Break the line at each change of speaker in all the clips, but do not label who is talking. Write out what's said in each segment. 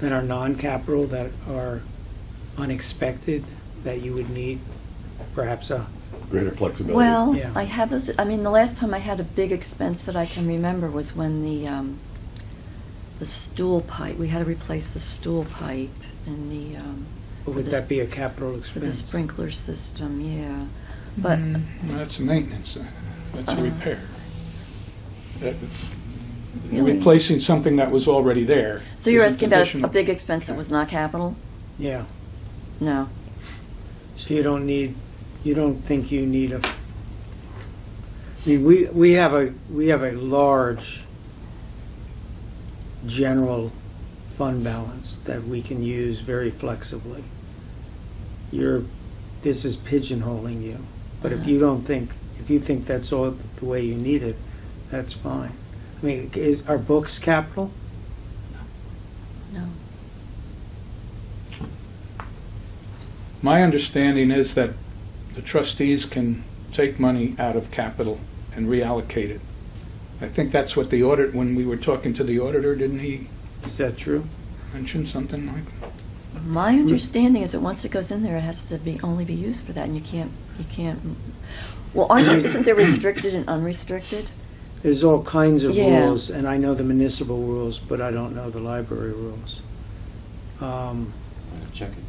that are non-capital, that are unexpected, that you would need perhaps a,
Greater flexibility.
Well,
Yeah.
I have those, I mean, the last time I had a big expense that I can remember was when the, um, the stool pipe, we had to replace the stool pipe and the, um,
would
the
that
sp-
be a capital
for the
expense?
sprinkler system, yeah.
Mm-hmm.
But,
That's maintenance, uh, that's a repair. That-
Really?
Replacing something that was already there.
so you're
is
asking about a
conditional-
big expense that was not capital?
Yeah,
No.
so you don't need, you don't think you need a, I mean, we, we have a, we have a large general fund balance that we can use very flexibly. You're, this is pigeonholing you, but if you don't think, if you think that's all the way you need it, that's fine. I mean, is, are books capital?
No.
My understanding is that the trustees can take money out of capital and reallocate it. I think that's what the audit, when we were talking to the auditor, didn't he
Is that true?
mention something like?
My understanding is that once it goes in there, it has to be, only be used for that, and you can't, you can't, well, aren't there, isn't there restricted and unrestricted?
There's all kinds of
Yeah.
rules, and I know the municipal rules, but I don't know the library rules. Um,
Check it.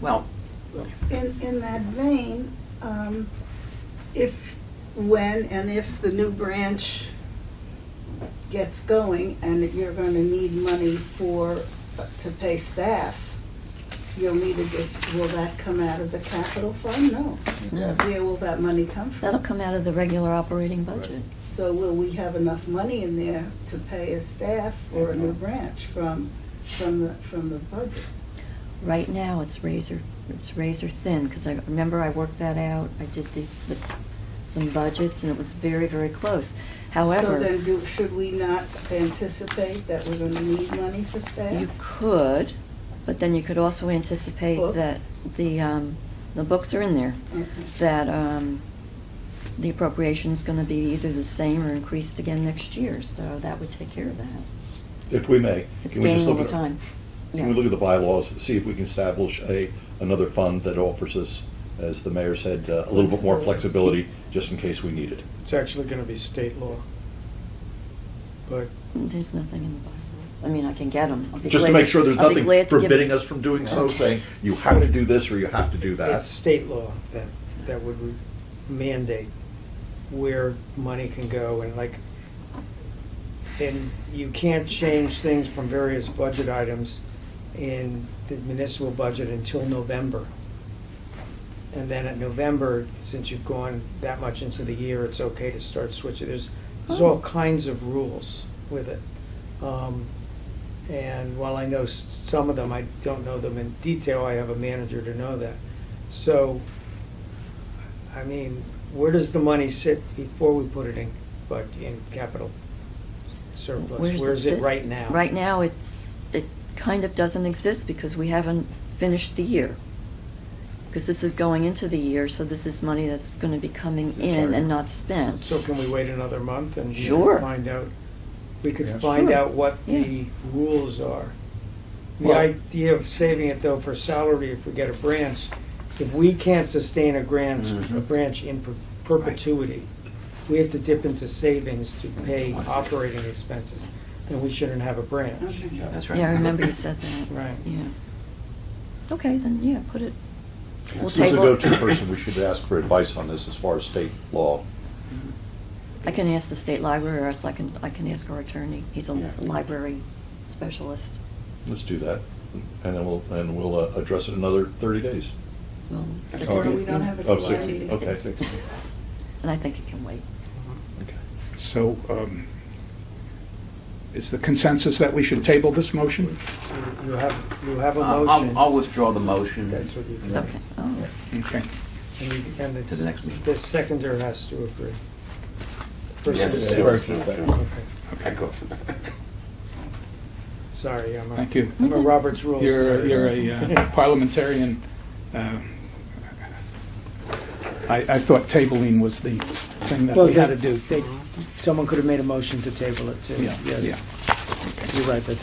Well,
In, in that vein, um, if, when and if the new branch gets going and that you're gonna need money for, to pay staff, you'll need to just, will that come out of the capital fund? No.
No.
Where will that money come from?
That'll come out of the regular operating budget.
So will we have enough money in there to pay a staff for a new branch from, from the, from the budget?
Right now, it's razor, it's razor thin, because I remember I worked that out, I did the, the, some budgets, and it was very, very close.
So
However,
then do, should we not anticipate that we're gonna need money for staff?
you could, but then you could also anticipate
Books?
that the, um, the books are in there,
Okay.
that, um, the appropriation's gonna be either the same or increased again next year, so that would take care of that.
If we may.
It's
can we just
gaining all
look
the
at-
time.
Can we look at the bylaws, see if we can establish a, another fund that offers us, as the mayor said, uh, a little bit more flexibility, just in case we need it?
It's actually gonna be state law. But
There's nothing in the bylaws, I mean, I can get them.
Just to make sure there's nothing forbidding us from doing so,
Okay.
saying, you have to do this or you have to do
It's
that.
state law that, that would re- mandate where money can go and like, and you can't change things from various budget items in the municipal budget until November. And then at November, since you've gone that much into the year, it's okay to start switching. There's, there's
Oh.
all kinds of rules with it. Um, And while I know s- some of them, I don't know them in detail, I have a manager to know that. So, I mean, where does the money sit before we put it in, but in capital
Where
surplus?
does
Where is
sit?
it right now?
Right now, it's, it kind of doesn't exist because we haven't finished the year. Because this is going into the year, so this is money that's gonna be coming
Just
in
started.
and not spent.
So can we wait another month and you know,
Sure.
find out? We could
Yeah.
find
Sure.
out what
Yeah.
the rules are. The
Well-
idea of saving it though for salary if we get a branch, if we can't sustain a branch, a branch in per- perpetuity, we have to dip into savings to pay operating expenses, then we shouldn't have a branch.
Okay.
That's right.
Yeah, I remember you said that.
Right.
Yeah. Okay, then, yeah, put it, we'll
Who's the
table
go-to
it.
person we should ask for advice on this as far as state law?
I can ask the state library, or else I can, I can ask our attorney. He's a
Yeah.
library specialist.
Let's do that, and then we'll, and we'll uh, address it in another thirty days.
Well, six
all
Or
right.
we
days,
don't
yeah.
have a
Oh,
July
60,
meeting.
okay.
And I think it can wait.
Okay.
So, um, is the consensus that we should table this motion?
You- You have, you have a
Uh, I'll- I'll,
motion,
I'll withdraw the motion.
That's what you-
Yeah.
Okay, oh,
Okay.
and you- and
To the
it's,
next meeting.
the seconder has to agree.
Yes.
Versus-
Yes.
Okay.
Echo.
Sorry, I'm a.
Thank you.
I'm a
Mm-hmm.
Robert's Rules.
You're,
nerd.
you're a uh, parliamentarian. uh, I, I thought tabling was the thing that
Well,
we had
they-
to do.
they- Someone could have made a motion to table it too.
Yeah,
Yes.
yeah.
You're right, that's